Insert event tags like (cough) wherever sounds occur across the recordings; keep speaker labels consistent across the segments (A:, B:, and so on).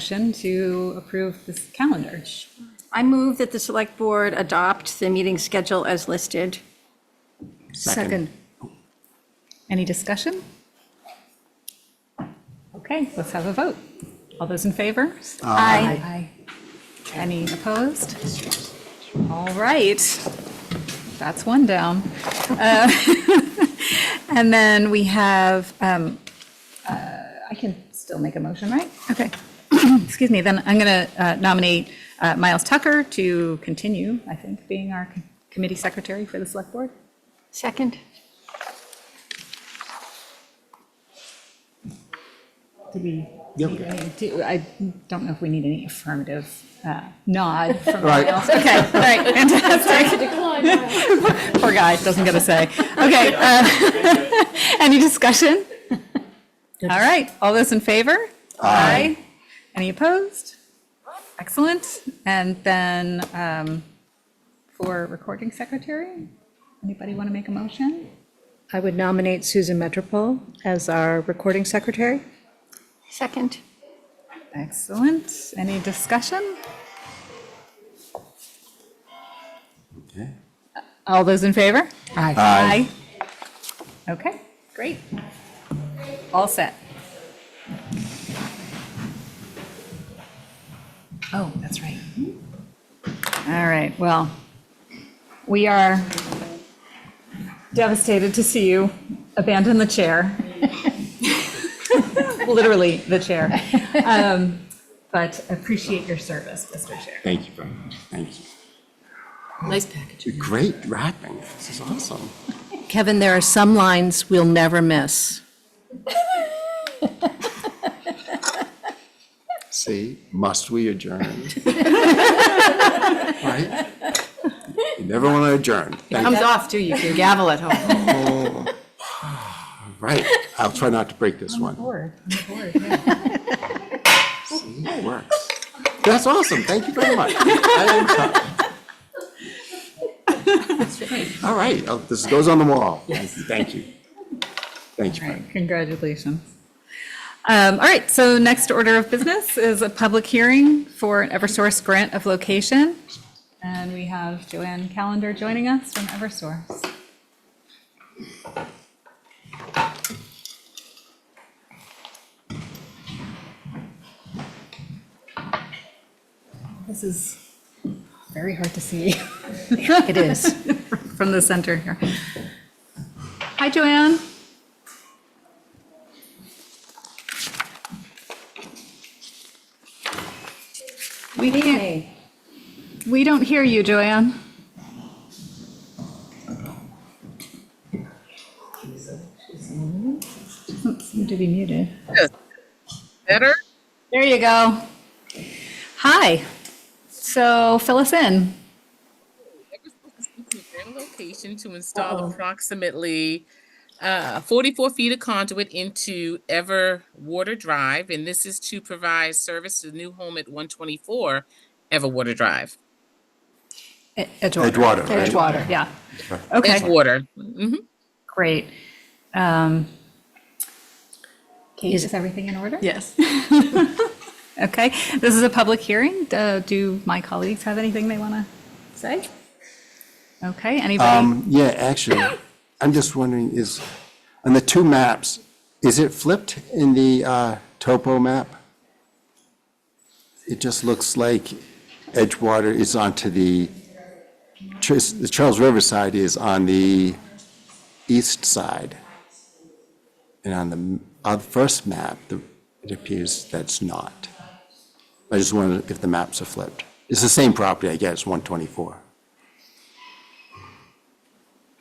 A: Motion to approve this calendar.
B: I move that the select board adopt the meeting schedule as listed.
C: Second.
A: Any discussion? Okay, let's have a vote. All those in favor?
B: Aye.
A: Aye. Any opposed? All right. That's one down. Uh, (laughs) And then we have, um, uh, I can still make a motion, right? Okay. (clears throat) Excuse me, then I'm going to nominate uh, Miles Tucker to continue, I think, being our committee secretary for the select board.
B: Second?
A: Did we?
C: Yep.
A: need any- do- I don't know if we need any affirmative uh, nod from anyone
C: Right.
A: else. Okay, all right, fantastic. (laughs) Poor guy, doesn't get a say. Okay. uh, (laughs) Any discussion? All right, all those in favor? Aye. Any opposed? Excellent. And then um, for recording secretary, anybody want to make a motion?
C: I would nominate Susan Metropole as our recording secretary.
B: Second?
A: Excellent. Any discussion?
D: Okay.
A: All those in favor? Aye. Aye. Okay, great. All set. Oh, that's right. All right, well, we are devastated to see you abandon the chair. (laughs) Literally, the chair. Um, But appreciate your service, Mr. Chair.
D: Thank you very much. Thank you.
E: Nice package.
D: You're great rapping. This is awesome.
E: Kevin, there are some lines we'll never miss.
D: See, must we adjourn? (laughs) Right? You never want to adjourn. Thank you.
E: Comes off too, you can gavel at (laughs) home.
D: Right. I'll try not to break this one.
A: Board.
D: See, it works. That's awesome. Thank you very much. I am touched. All right. Oh, This goes on the wall. Thank you. Thank you. very much.
A: Right, congratulations. Um, All right, so next order of business is a public hearing for an Eversource grant of location. And we have Joanne Calendar joining us from Eversource. This is very hard to see. (laughs) It is. From the center here. Hi, Joanne. We can't. We don't hear you, Joanne. Doesn't seem to be muted.
F: Better?
A: There you go. Hi. So fill us in.
F: Their location to install approximately uh, 44 feet of conduit into Ever Water Drive, and this is to provide service to the new home at 124 Ever Water Drive.
A: Ed-
D: Edgewater, right?
A: Edgewater, E-, yeah. Okay,
F: Edgewater. Mhm.
A: great. Um, Kate, is everything in order?
E: Yes.
A: Okay, this is a public hearing. Uh, Do my colleagues have anything they want to say? Okay, anybody?
D: Um, Yeah, actually, I'm just wondering, is, on the two maps, is it flipped in the uh, topo map? It just looks like Edgewater is onto the, Chas- the Charles River side is on the east side. And on the, m- on the first map, the- it appears that's not. I just wondered if the maps are flipped. It's the same property, I guess, 124.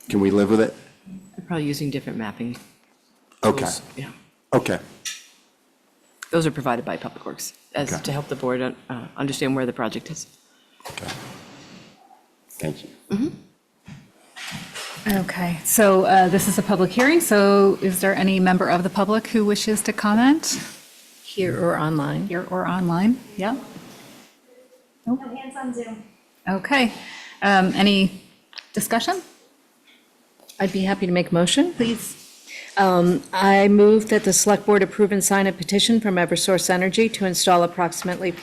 D: Can we live with it?
E: They're Probably using different mapping.
D: Okay,
E: tools. Yeah.
D: okay,
E: Those are provided by Public Works as
D: Okay.
E: to help the board uh, understand where the project is.
D: okay. Thank you.
A: Okay, so uh, this is a public hearing, so is there any member of the public who wishes to comment
E: Here or online?
A: here or online? Yeah,
G: No hands on Zoom.
A: okay. Um, Any discussion?
C: I'd be happy to make a motion.
A: Please.
C: Um, Um, I move that the select board approve and sign a petition from Eversource Energy to install approximately